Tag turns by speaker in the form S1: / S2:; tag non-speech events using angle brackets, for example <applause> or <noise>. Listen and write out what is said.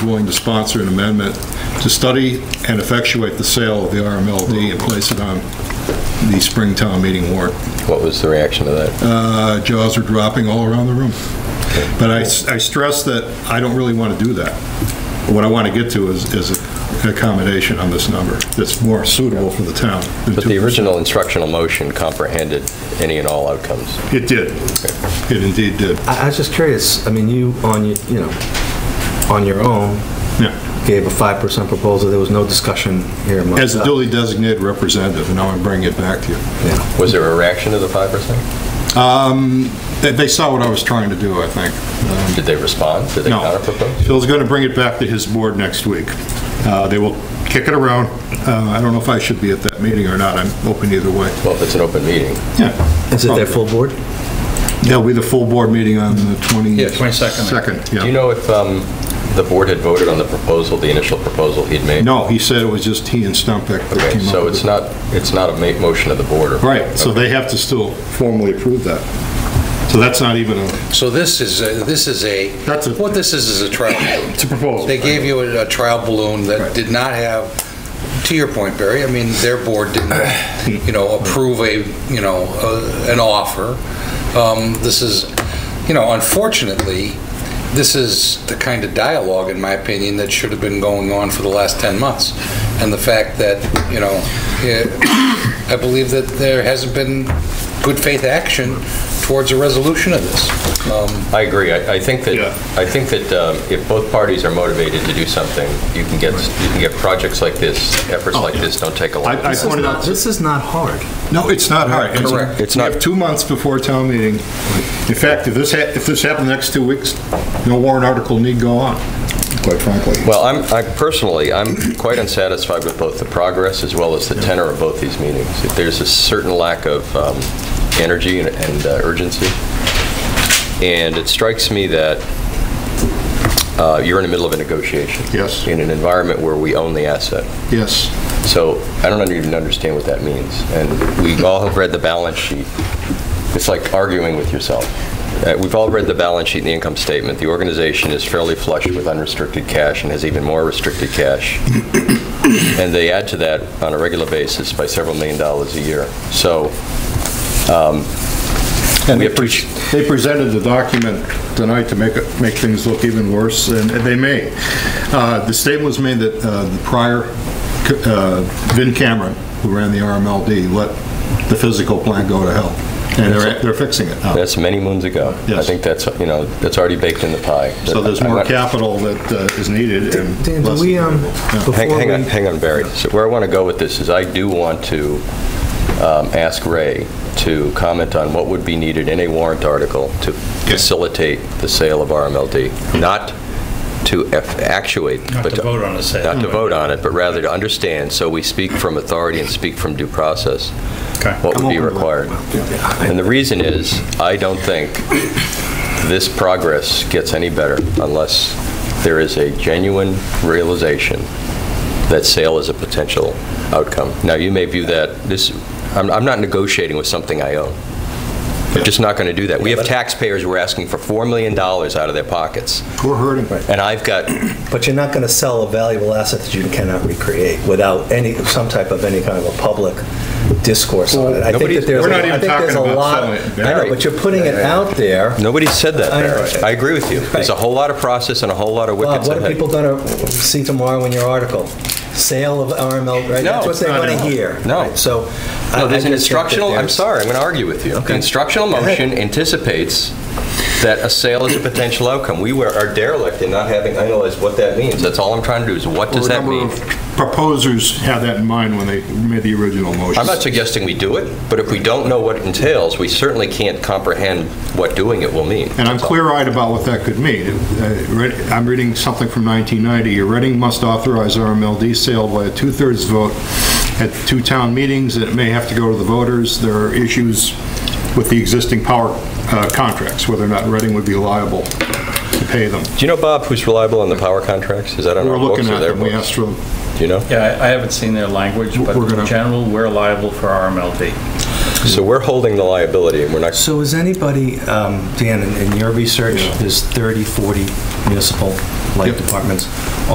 S1: willing to sponsor an amendment to study and effectuate the sale of the RMLD and place it on the spring town meeting warrant.
S2: What was the reaction to that?
S1: Uh, Jaws are dropping all around the room. But I I stress that I don't really want to do that. What I want to get to is is an accommodation on this number that's more suitable for the town. than
S2: But the
S1: 2%.
S2: original instructional motion comprehended any and all outcomes.
S1: It did. It indeed did.
S3: I I was just curious, I mean, you, on, your- you know, on your own,
S1: Yeah.
S3: gave a 5% proposal, there was no discussion here amongst
S1: As a
S3: us.
S1: duly designated representative, and now I'm bringing it back to you.
S3: Yeah.
S2: Was there a reaction to the 5%?
S1: Um, They they saw what I was trying to do, I think.
S2: Did they respond? Did they
S1: No.
S2: counterpropose?
S1: Phil's going to bring it back to his board next week. Uh, They will kick it around. Uh, I don't know if I should be at that meeting or not. I'm open either way.
S2: Well, if it's an open meeting,
S1: Yeah.
S3: Is it their full board?
S1: There'll be the full board meeting on the 20...
S4: Yeah, 22nd.
S1: Second, yeah.
S2: do you know if um, the board had voted on the proposal, the initial proposal he'd made?
S1: No, he said it was just he and Stumpik that
S2: Okay,
S1: came up
S2: so
S1: with
S2: it's
S1: it.
S2: not, it's not a ma- motion of the board? or-
S1: Right, so
S2: Okay.
S1: they have to still formally approve that. So that's not even a...
S4: So this is, a- this is a,
S1: That's a-
S4: what this is, is a trial balloon.
S1: It's a proposal.
S4: They gave you a a trial balloon
S1: Right.
S4: that did not have, to your point, Barry, I mean, their board didn't, you know, approve a, you know, uh, an offer. Um, This is, you know, unfortunately, this is the kind of dialogue, in my opinion, that should have been going on for the last 10 months. And the fact that, you know, eh, I believe that there hasn't been good faith action towards a resolution of this. Um,
S2: I agree. I I think that,
S1: Yeah.
S2: I think that um, if both parties are motivated to do something, you can get, you can get projects like this, efforts like this don't take a lot.
S1: Oh, I- I
S3: This is
S1: pointed
S3: not-
S1: out,
S3: This is not hard.
S1: no, it's not hard. It's-
S4: Correct.
S2: It's
S1: We
S2: not-
S1: have two months before town meeting. In fact, if this, hap- if this happened the next two weeks, no warrant article need go on, quite frankly.
S2: Well, I'm, I personally, I'm quite unsatisfied with both the progress as well as the tenor of both these meetings. If There's a certain lack of um, energy and- and uh, urgency, and it strikes me that uh, you're in the middle of a negotiation.
S1: Yes.
S2: In an environment where we own the asset.
S1: Yes,
S2: So I don't even understand what that means. And we all have read the balance sheet. It's like arguing with yourself. Uh, We've all read the balance sheet and the income statement. The organization is fairly flush with unrestricted cash and has even more restricted cash. <coughs> And they add to that on a regular basis by several million dollars a year. So
S1: and
S2: We
S1: they pre- they presented the document tonight to make, it- make things look even worse, and and they may. Uh, The statement was made that uh, the prior, uh, Vin Cameron, who ran the RMLD, let the physical plan go to hell, and they're, they're fixing it now.
S2: that's many moons ago. I
S1: Yes.
S2: think that's, you know, that's already baked in the pie.
S1: So there's
S2: I'm
S1: more
S2: not-
S1: capital that uh, is needed and
S3: Dan, do
S1: less
S3: we, um,
S1: available. Yeah.
S3: before
S2: Hang hang on,
S3: we...
S2: hang on, Barry. So where I want to go with this is I do want to um, ask Ray to comment on what would be needed in a warrant article to facilitate the sale of RMLD, not to eff- actuate.
S5: Not
S2: but
S5: to vote on the sale.
S2: Not to vote on it, but rather to understand, so we speak from authority and speak from due process,
S5: Okay.
S2: what would be
S1: I'm open to that.
S2: required. And the reason is, I don't think this progress gets any better unless there is a genuine realization that sale is a potential outcome. Now, you may view that, this, I'm I'm not negotiating with something I own. I'm just not going to do that. We have taxpayers who are asking for $4 million out of their pockets,
S1: We're hurting.
S2: and I've got
S3: But you're not going to sell a valuable asset that you cannot recreate without any, some type of any kind of a public discourse on it. I think
S2: nobody's-
S3: that there's,
S1: we're
S3: a-
S1: not
S3: I
S1: even
S3: think there's a
S1: talking about
S3: lot...
S1: selling it,
S3: I
S1: Barry.
S3: know, but you're putting it out there.
S2: Nobody said that,
S3: I know.
S2: Barry. I agree with you. There's a whole lot of process and a whole lot of
S3: Bob,
S2: wickets
S3: what are
S2: ahead.
S3: people going to see tomorrow in your article? Sale of RML, right?
S2: No,
S3: That's what
S2: it's
S3: they
S2: not
S3: want to
S2: in-
S3: hear.
S2: No.
S3: right? So... I-
S2: No,
S3: I
S2: there's an
S3: just think that
S2: instructional, I'm
S3: there's-
S2: sorry, I'm going to argue with you. The
S3: Okay.
S2: instructional
S3: Go ahead.
S2: motion anticipates that a sale is a potential outcome. We were are derelict in not having analyzed what that means. That's all I'm trying to do, is what does that mean?
S1: Proposers had that in mind when they made the original motion.
S2: I'm not suggesting we do it, but if we don't know what it entails, we certainly can't comprehend what doing it will mean.
S1: And I'm
S2: That's all.
S1: clear-eyed about what that could mean. Uh, read- I'm reading something from 1990. Reading must authorize RMLD sale by a two-thirds vote at two town meetings, and it may have to go to the voters. There are issues with the existing power uh, contracts, whether or not Reading would be liable to pay them.
S2: Do you know, Bob, who's reliable on the power contracts? Is that on
S1: We're
S2: our books
S1: looking
S2: or
S1: at
S2: their
S1: them, we
S2: books?
S1: asked for them.
S2: Do you know?
S5: Yeah, I I haven't seen their language, but
S1: We're gonna-
S5: in general, we're liable for RMLD.
S2: So we're holding the liability, and we're not
S3: So is anybody, um, Dan, in- in your research, there's 30, 40 municipal like
S1: Yep.
S3: departments,